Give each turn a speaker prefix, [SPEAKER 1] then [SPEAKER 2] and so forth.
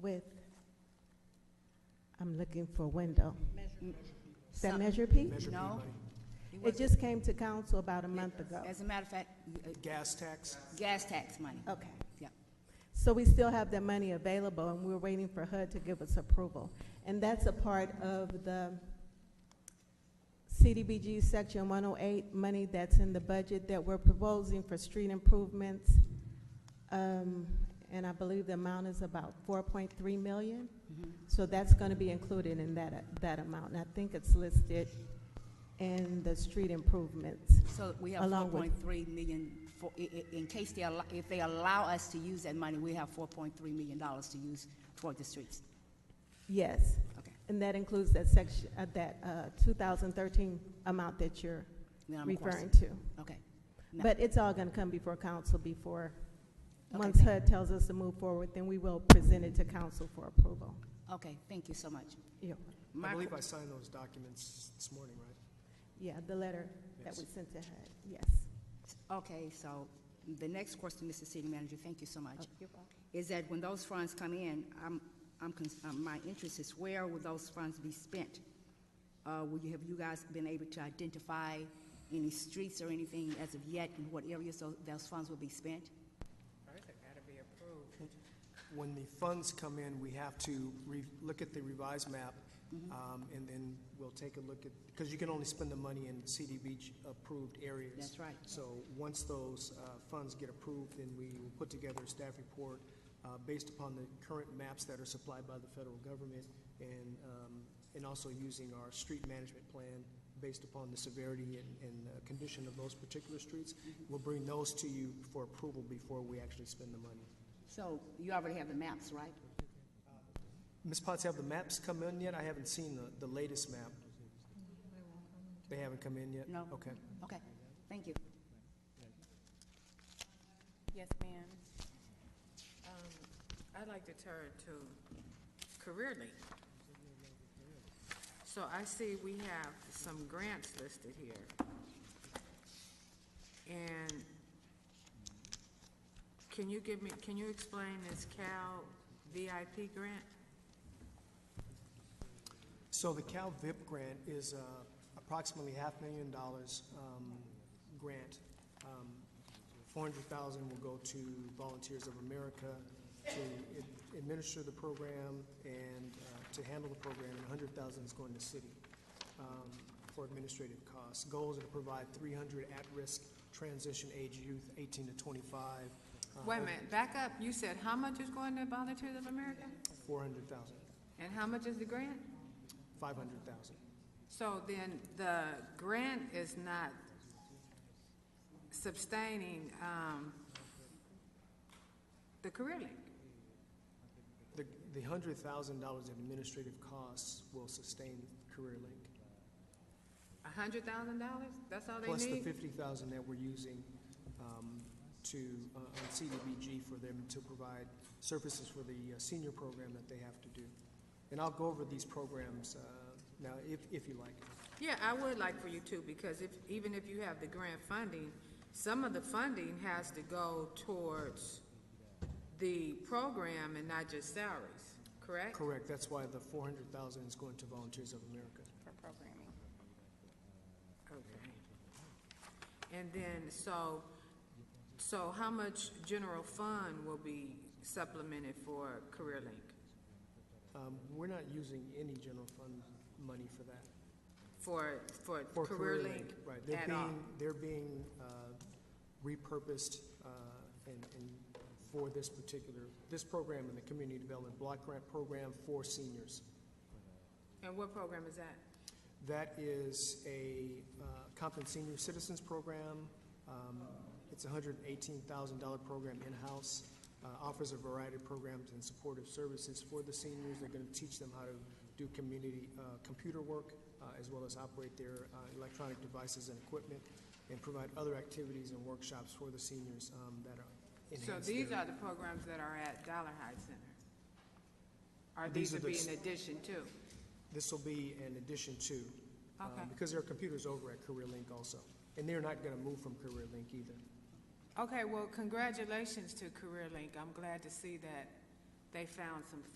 [SPEAKER 1] with, I'm looking for window. Is that
[SPEAKER 2] Some-
[SPEAKER 1] Measure P?
[SPEAKER 3] Measure P
[SPEAKER 2] No.
[SPEAKER 3] money.
[SPEAKER 2] It
[SPEAKER 1] It
[SPEAKER 2] wasn't.
[SPEAKER 1] just came to council about a month ago.
[SPEAKER 2] As a matter of fact, uh,
[SPEAKER 3] Gas tax,
[SPEAKER 2] gas tax money.
[SPEAKER 1] Okay.
[SPEAKER 2] Yep.
[SPEAKER 1] So we still have that money available, and we're waiting for HUD to give us approval. And that's a part of the CDBG Section 108 money that's in the budget that we're proposing for street improvements. Um, And I believe the amount is about 4.3 million.
[SPEAKER 2] Mhm.
[SPEAKER 1] So that's going to be included in that, that amount. And I think it's listed in the street improvements.
[SPEAKER 2] So we have four
[SPEAKER 1] Along with-
[SPEAKER 2] point three million, for, i- i- in case they allow, if they allow us to use that money, we have four point three million dollars to use toward the streets.
[SPEAKER 1] Yes.
[SPEAKER 2] Okay.
[SPEAKER 1] And that includes that section, uh, that uh, 2013 amount that you're
[SPEAKER 2] Then I'm
[SPEAKER 1] referring
[SPEAKER 2] crossing.
[SPEAKER 1] to.
[SPEAKER 2] Okay. No.
[SPEAKER 1] But it's all going to come before council before,
[SPEAKER 2] Okay,
[SPEAKER 1] once
[SPEAKER 2] thank-
[SPEAKER 1] HUD tells us to move forward, then we will present it to council for approval.
[SPEAKER 2] Okay, thank you so much.
[SPEAKER 1] Yeah,
[SPEAKER 2] My
[SPEAKER 3] I
[SPEAKER 2] qu-
[SPEAKER 3] believe I signed those documents this morning, right?
[SPEAKER 1] Yeah, the letter that
[SPEAKER 3] Yes.
[SPEAKER 1] we sent to HUD, yes.
[SPEAKER 2] Okay, so the next question, Mr. City Manager, thank you so much. Is that when those funds come in, I'm, I'm, cons- uh, my interest is where will those funds be spent? Uh, will you, have you guys been able to identify any streets or anything as of yet, and what areas those, those funds will be spent?
[SPEAKER 3] When the funds come in, we have to re, look at the revised map,
[SPEAKER 2] Mm-hmm.
[SPEAKER 3] um, and then we'll take a look at, because you can only spend the money in CDBG-approved areas.
[SPEAKER 2] That's right.
[SPEAKER 3] So once those, uh, funds get approved, then we will put together a staff report, uh, based upon the current maps that are supplied by the federal government, and, um, and also using our street management plan based upon the severity and, and uh, condition of those particular streets. We'll bring those to you for approval before we actually spend the money.
[SPEAKER 2] So you already have the maps, right?
[SPEAKER 3] Ms. Potts, have the maps come in yet? I haven't seen the, the latest map. They haven't come in yet?
[SPEAKER 2] No.
[SPEAKER 3] Okay.
[SPEAKER 2] Okay, thank you.
[SPEAKER 4] Yes, ma'am. Um, I'd like to turn to Career Link. So I see we have some grants listed here. And can you give me, can you explain this Cal VIP grant?
[SPEAKER 3] So the Cal VIP grant is uh, approximately half million dollars um, grant. Um, 400,000 will go to Volunteers of America to ad- administer the program and uh, to handle the program, and 100,000 is going to city um, for administrative costs. Goals are to provide 300 at-risk transition age youth, 18 to 25. uh,
[SPEAKER 4] Wait a minute, back up. You said how much is going to Volunteers of America?
[SPEAKER 3] 400,000,
[SPEAKER 4] And how much is the grant?
[SPEAKER 3] 500,000.
[SPEAKER 4] So then the grant is not sustaining, um, the Career Link.
[SPEAKER 3] The, the hundred thousand dollars in administrative costs will sustain CareerLink,
[SPEAKER 4] A hundred thousand dollars? That's all
[SPEAKER 3] plus
[SPEAKER 4] they
[SPEAKER 3] the
[SPEAKER 4] need?
[SPEAKER 3] fifty thousand dollars that we're using um, to, uh, on CDBG for them to provide services for the uh, senior program that they have to do. And I'll go over these programs uh, now, if, if you like.
[SPEAKER 4] Yeah, I would like for you to, because if, even if you have the grant funding, some of the funding has to go towards the program and not just salaries, correct?
[SPEAKER 3] Correct, that's why the four hundred thousand dollars is going to Volunteers of America.
[SPEAKER 4] Okay. And then, so, so how much general fund will be supplemented for Career Link?
[SPEAKER 3] Um, We're not using any general fund money for that.
[SPEAKER 4] For, for
[SPEAKER 3] For
[SPEAKER 4] Career Link
[SPEAKER 3] Right, they're
[SPEAKER 4] at all?
[SPEAKER 3] being, they're being uh, repurposed uh, and, and for this particular, this program in the community development block grant program for seniors.
[SPEAKER 4] And what program is that?
[SPEAKER 3] That is a uh, Compton Senior Citizens Program. Um, It's a hundred and eighteen thousand dollar program in-house, uh, offers a variety of programs and supportive services for the seniors. They're gonna teach them how to do community, uh, computer work, uh, as well as operate their uh, electronic devices and equipment, and provide other activities and workshops for the seniors um, that are
[SPEAKER 4] So
[SPEAKER 3] enhanced.
[SPEAKER 4] these are the programs that are at Dollar High Center? Are
[SPEAKER 3] These
[SPEAKER 4] these
[SPEAKER 3] are
[SPEAKER 4] would
[SPEAKER 3] the
[SPEAKER 4] be
[SPEAKER 3] s-
[SPEAKER 4] in addition to?
[SPEAKER 3] This will be an addition to, uh,
[SPEAKER 4] Okay.
[SPEAKER 3] because there are computers over at CareerLink also, and they're not gonna move from CareerLink either.
[SPEAKER 4] Okay, well, congratulations to Career Link. I'm glad to see that they found some